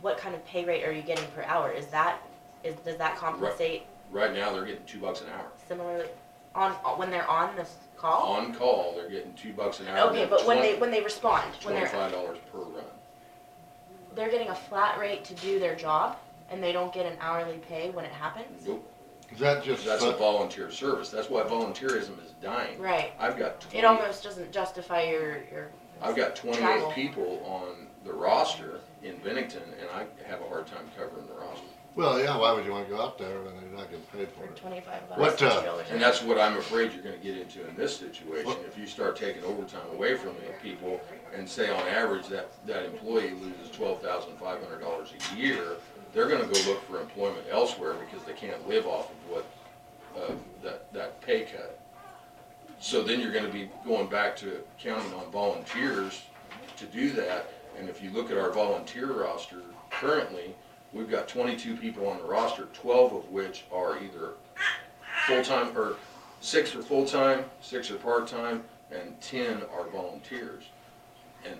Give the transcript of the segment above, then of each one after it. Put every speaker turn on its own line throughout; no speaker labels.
what kind of pay rate are you getting per hour? Is that, is, does that compensate
Right now, they're getting two bucks an hour.
similarly on, when they're on this call?
On call, they're getting two bucks an hour.
Oh. Okay, but when they, when they respond, when they're,
Twenty-five dollars per run.
they're getting a flat rate to do their job and they don't get an hourly pay when it happens?
Nope,
Is that just,
That's a
fu-
volunteer service. That's why volunteerism is dying.
Right,
I've got
it
twenty,
almost doesn't justify your, your.
I've got
travel.
twenty-eight people on the roster in Bennington, and I have a hard time covering the roster.
well, yeah, why would you wanna go out there when they're not getting paid for
For
it?
twenty-five bucks.
What, uh,
$2.
And that's what I'm afraid you're gonna get into in this situation. If you start taking overtime away from the people and say on average that, that employee loses twelve thousand five hundred dollars a year, they're gonna go look for employment elsewhere because they can't live off of what, uh, that, that pay cut. So then you're gonna be going back to counting on volunteers to do that. And if you look at our volunteer roster currently, we've got twenty-two people on the roster, twelve of which are either full-time, or six are full-time, six are part-time, and ten are volunteers. And,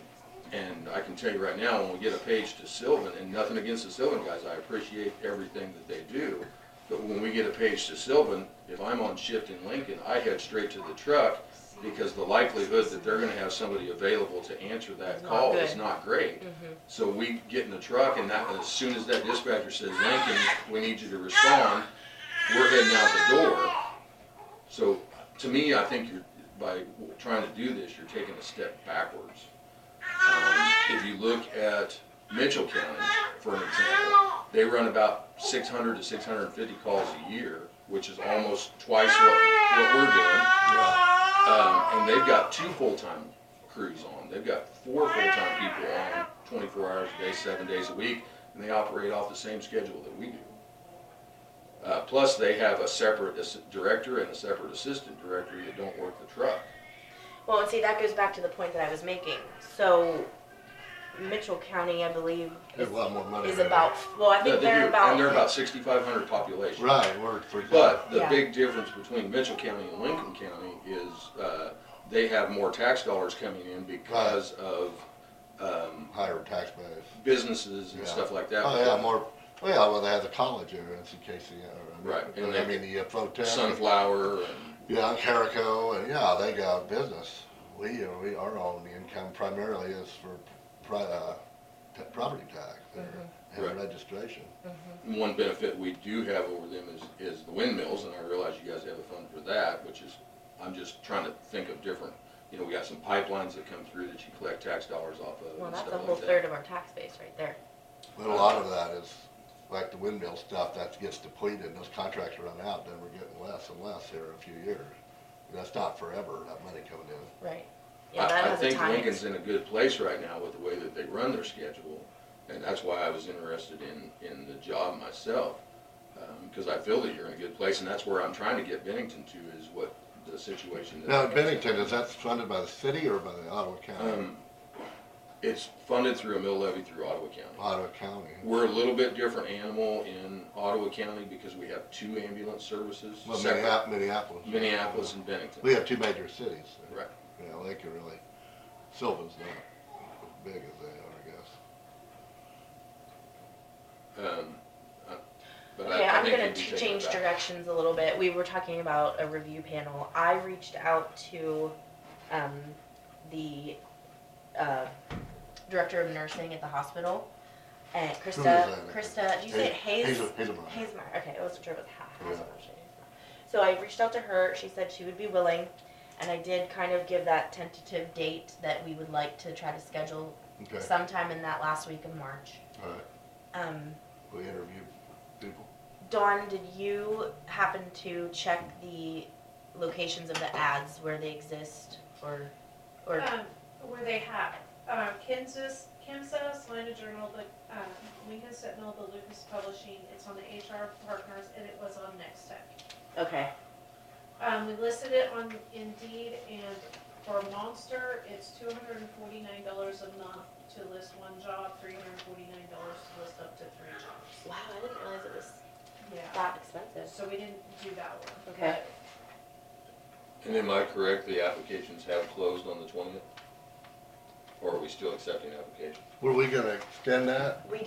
and I can tell you right now, when we get a page to Sylvan, and nothing against the Sylvan guys, I appreciate everything that they do, but when we get a page to Sylvan, if I'm on shift in Lincoln, I head straight to the truck, because the likelihood that they're gonna have somebody available to answer that
Not
call is
good. Mm-hmm.
not great. So we get in the truck, and that, as soon as that dispatcher says, Lincoln, we need you to respond, we're heading out the door. So, to me, I think you're, by trying to do this, you're taking a step backwards. Um, If you look at Mitchell County, for an example, they run about six hundred to six hundred and fifty calls a year, which is almost twice what, what we're doing.
Yeah,
Um, and they've got two full-time crews on. They've got four full-time people on twenty-four hours a day, seven days a week, and they operate off the same schedule that we do. Uh, plus, they have a separate ass- director and a separate assistant director that don't work the truck.
Well, and see, that goes back to the point that I was making. So, Mitchell County, I believe,
They have a lot more money.
is
than
about, well, I
No,
think
they do,
they're
And they're
about,
about sixty-five hundred
that.
population.
Right, we're three.
But the
Yeah.
big difference between Mitchell County and Lincoln County is, uh, they have more tax dollars coming in because of, um,
Higher tax base.
businesses and
Yeah.
stuff like that.
Oh, yeah, more, well, yeah, well, they have the college area, NCKC, or,
Right, and
I
they-
mean, the uh, Protest.
Sunflower and
Yeah, Carico, and yeah, they got business. We, uh, we, our only income primarily is for pri, uh, t- property tax there
Right.
Mm-hmm.
and registration.
One benefit we do have over them is, is the windmills, and I realize you guys have a fund for that, which is, I'm just trying to think of different, you know, we got some pipelines that come through that you collect tax dollars off of
well,
and
that's a
stuff
whole
like that.
third of our tax base right there.
But a lot of that is, like the windmill stuff, that gets depleted, and those contracts run out, then we're getting less and less here in a few years. That's not forever, that money coming in.
Right. Yeah, that
I, I
has a
think
time.
Lincoln's in a good place right now with the way that they run their schedule, and that's why I was interested in, in the job myself. Um, cause I feel that you're in a good place, and that's where I'm trying to get Bennington to, is what the situation that.
Now, Bennington, is that funded by the city or by the Ottawa County?
Um, it's funded through a mill levy through Ottawa County.
Ottawa County.
We're a little bit different animal in Ottawa County because we have two ambulance services.
Well,
separate,
Minneap- Minneapolis.
Minneapolis and Bennington.
We have two major cities. so,
Right.
You know, they can really, Sylvan's not as big as they are, I guess.
Um, uh, but I-
Okay,
I
I'm
think
gonna
we'd be
t-
taking
change
it back.
directions a little bit. We were talking about a review panel. I reached out to, um, the, uh, director of nursing at the hospital. And Krista,
Who is that?
Krista, do you say it Hayes?
Hazel- Hazelmeyer.
Hazemeyer, okay, I wasn't sure it was Ha-
Yeah.
Hazemeyer. So I reached out to her, she said she would be willing, and I did kind of give that tentative date that we would like to try to schedule
Okay,
sometime in that last week of March.
all right.
Um,
We interviewed people.
Dawn, did you happen to check the locations of the ads where they exist, or, or,
Um, where they have, um, Kansas, Kansas, Atlanta Journal, the, um, Lincoln Sentinel, the Lucas Publishing, it's on the HR Partners, and it was on Next Tech.
okay,
Um, we listed it on Indeed, and for Monster, it's two hundred and forty-nine dollars a month to list one job, three hundred and forty-nine dollars to list up to three jobs.
wow, I didn't realize it was
Yeah,
that expensive.
so we didn't do that one.
Okay.
And am I correct, the applications have closed on the twentieth? Or are we still accepting applications?
Were we gonna extend that?
We